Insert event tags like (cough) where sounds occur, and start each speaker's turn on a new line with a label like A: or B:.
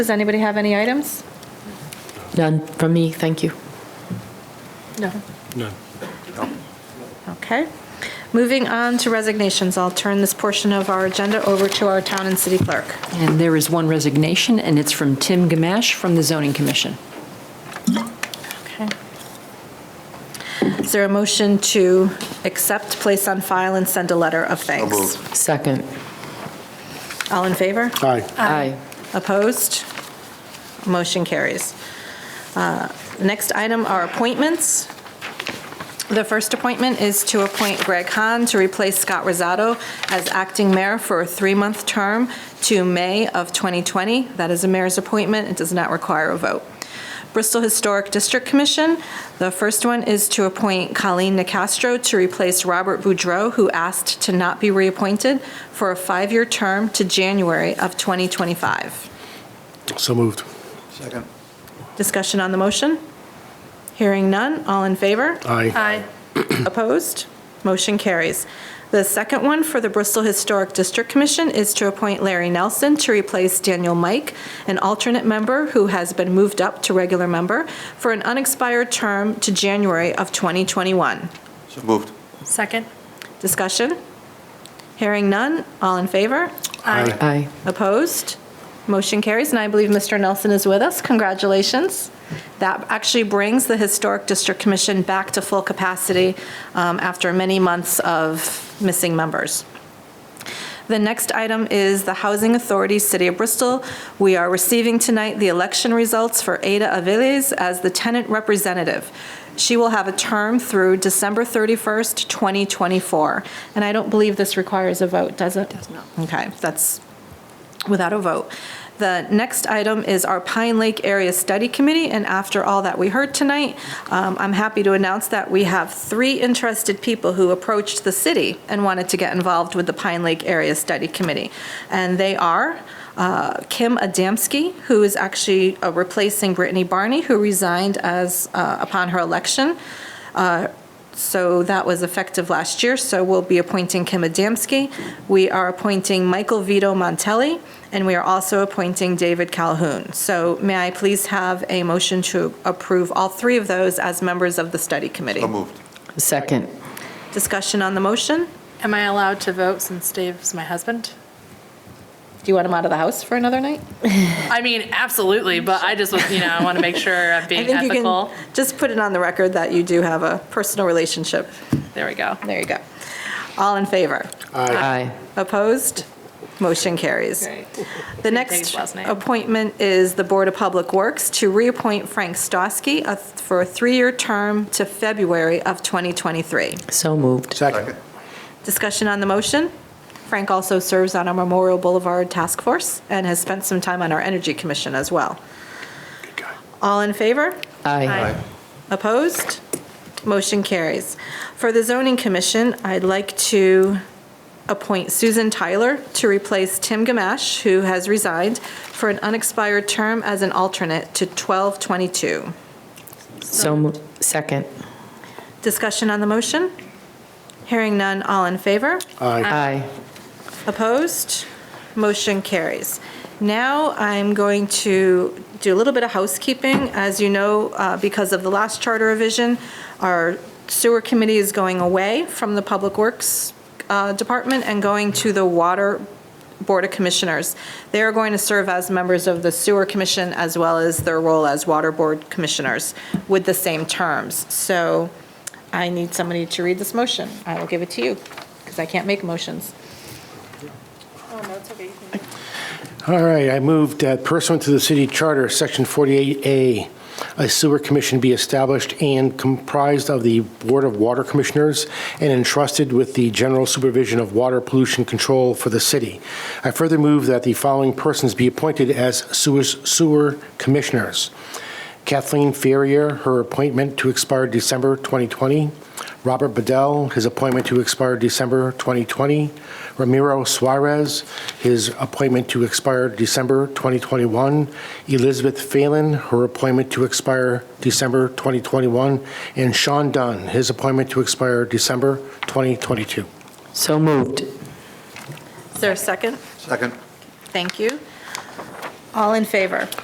A: Does anybody have any items?
B: None from me, thank you.
A: No.
C: No.
A: Okay. Moving on to resignations, I'll turn this portion of our agenda over to our town and city clerk.
D: And there is one resignation, and it's from Tim Gamash from the Zoning Commission.
A: Okay. Is there a motion to accept, place on file, and send a letter of thanks?
B: Second.
A: All in favor?
C: Aye.
B: Aye.
A: Opposed? Motion carries. Uh, Next item are appointments. The first appointment is to appoint Greg Hahn to replace Scott Rosato as acting mayor for a three-month term to May of 2020. That is a mayor's appointment. It does not require a vote. Bristol Historic District Commission, the first one is to appoint Colleen Nicastro to replace Robert Boudreau, who asked to not be reappointed, for a five-year term to January of 2025.
C: So moved.
E: Second.
A: Discussion on the motion? Hearing none, all in favor?
C: Aye.
F: Aye.
A: Opposed? Motion carries. The second one for the Bristol Historic District Commission is to appoint Larry Nelson to replace Daniel Mike, an alternate member who has been moved up to regular member, for an unexpired term to January of 2021.
E: So moved.
F: Second?
A: Discussion? Hearing none, all in favor?
C: Aye.
B: Aye.
A: Opposed? Motion carries, and I believe Mr. Nelson is with us. Congratulations. That actually brings the Historic District Commission back to full capacity um, after many months of missing members. The next item is the Housing Authority, City of Bristol. We are receiving tonight the election results for Ada Aviles as the tenant representative. She will have a term through December 31st, 2024. And I don't believe this requires a vote, does it? Does not. Okay, that's without a vote. The next item is our Pine Lake Area Study Committee, and after all that we heard tonight, um, I'm happy to announce that we have three interested people who approached the city and wanted to get involved with the Pine Lake Area Study Committee. And they are uh, Kim Adamski, who is actually uh, replacing Brittany Barney, who resigned as, uh, upon her election. Uh, so that was effective last year, so we'll be appointing Kim Adamski. We are appointing Michael Vito Montelli, and we are also appointing David Calhoun. So may I please have a motion to approve all three of those as members of the study committee?
E: So moved.
B: Second.
A: Discussion on the motion?
F: Am I allowed to vote since Dave's my husband?
A: Do you want him out of the house for another night?
F: I mean, absolutely, but I just, was- you know, I want to make sure
A: (laughs)
F: I'm
A: I
F: being
A: think you
F: ethical.
A: can Just put it on the record that you do have a personal relationship.
F: There we go.
A: There you go. All in favor?
B: Aye.
A: Opposed? Motion carries. The next
F: Dave's last name.
A: appointment is the Board of Public Works to reappoint Frank Stosky a- for a three-year term to February of 2023.
B: So moved.
C: Second.
A: Discussion on the motion? Frank also serves on our Memorial Boulevard Task Force and has spent some time on our Energy Commission as well.
C: Good guy.
A: All in favor?
B: Aye.
F: Aye.
A: Opposed? Motion carries. For the zoning commission, I'd like to appoint Susan Tyler to replace Tim Gamash, who has resigned, for an unexpired term as an alternate to 1222.
B: So moved. Second.
A: Discussion on the motion? Hearing none, all in favor?
C: Aye.
B: Aye.
A: Opposed? Motion carries. Now I'm going to do a little bit of housekeeping. As you know, uh, because of the last charter revision, our sewer committee is going away from the Public Works uh, Department and going to the Water Board of Commissioners. They are going to serve as members of the Sewer Commission as well as their role as Water Board Commissioners with the same terms. So I need somebody to read this motion. I will give it to you because I can't make motions.
C: All right, I moved that pursuant to the city charter, section 48A, a sewer commission be established and comprised of the Board of Water Commissioners and entrusted with the general supervision of water pollution control for the city. I further move that the following persons be appointed as sewer- sewer commissioners. Kathleen Ferrier, her appointment to expire December 2020. Robert Bedell, his appointment to expire December 2020. Ramiro Suarez, his appointment to expire December 2021. Elizabeth Phelan, her appointment to expire December 2021. And Sean Dunn, his appointment to expire December 2022.
B: So moved.
A: Is there a second?
E: Second.
A: Thank you. All in favor?